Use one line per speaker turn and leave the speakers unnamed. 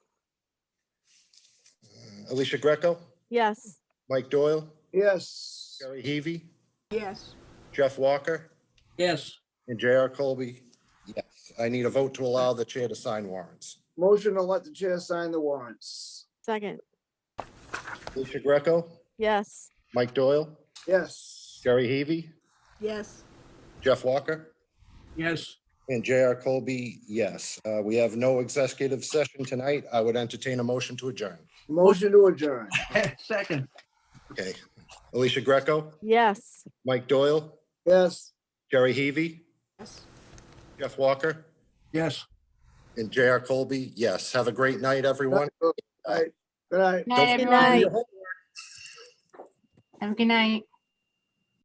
Alicia Greco,
Yes.
Mike Doyle,
Yes.
Jerry Heavy,
yes,
Jeff Walker,
yes,
and J.R. Colby. Yes, I need a vote to allow the chair to sign warrants.
Motion to let the chair sign the warrants.
Second.
Alicia Greco,
Yes.
Mike Doyle,
Yes.
Jerry Heavy,
yes,
Jeff Walker,
yes,
and J.R. Colby, yes. Uh, We have no executive session tonight. I would entertain a motion to adjourn.
Motion to adjourn.
second,
Okay. Alicia Greco,
Yes.
Mike Doyle,
Yes.
Jerry Heavy,
yes.
Jeff Walker,
yes.
and J.R. Colby, yes. Have a great night, everyone.
All right. Good night.
Night,
Don't-
everyone.
Night.
Have a good night.